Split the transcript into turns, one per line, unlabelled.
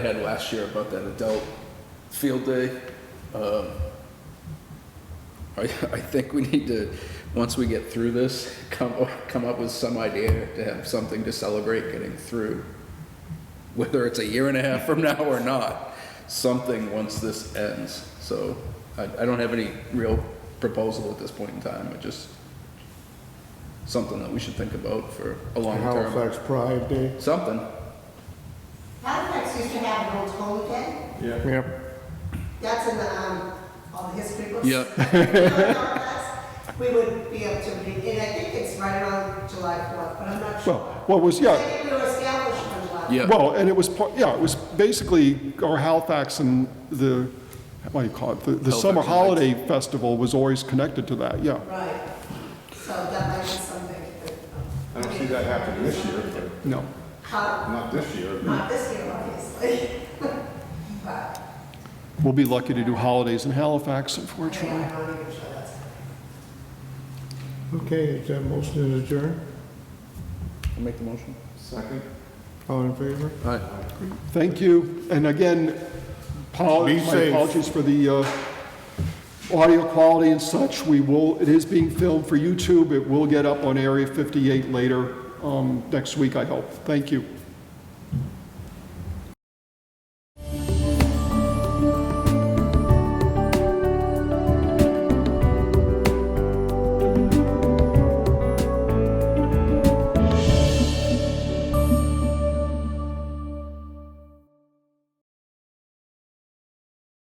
I had last year about that adult field day. Um, I, I think we need to, once we get through this, come, up- come up with some idea to have something to celebrate getting through. Whether it's a year and a half from now or not, something once this ends. So I, I don't have any real proposal at this point in time. I just, something that we should think about for a long term.
Halifax Pride Day.
Something.
Halifax used to have an old Tony Day.
Yeah.
That's in the, um, all the history books.
Yep.
We would be up to, re- and I think it's right around July 4th, but I'm not
Well,
sure.
what was,
I
yeah,
think we were established on July.
Yeah.
well, and it was, part- yeah, it was basically our Halifax and the, what do you call it? The- The summer
Halifax Lights.
holiday festival was always connected to that, yeah.
Right. So that might be something. that-
I don't see that happening this year, but
No.
How,
not this year.
not this year, obviously. But,
We'll be lucky to do holidays in Halifax, unfortunately.
yeah, I'm not even sure that's.
Okay, is that motion to adjourn?
I'll make the motion.
Second?
All in favor?
All right.
Thank you. And again, apol-
Be
my
safe.
apologies for the uh, audio quality and such. We will, it is being filmed for YouTube. It will get up on Area 58 later um, next week, I hope. Thank you.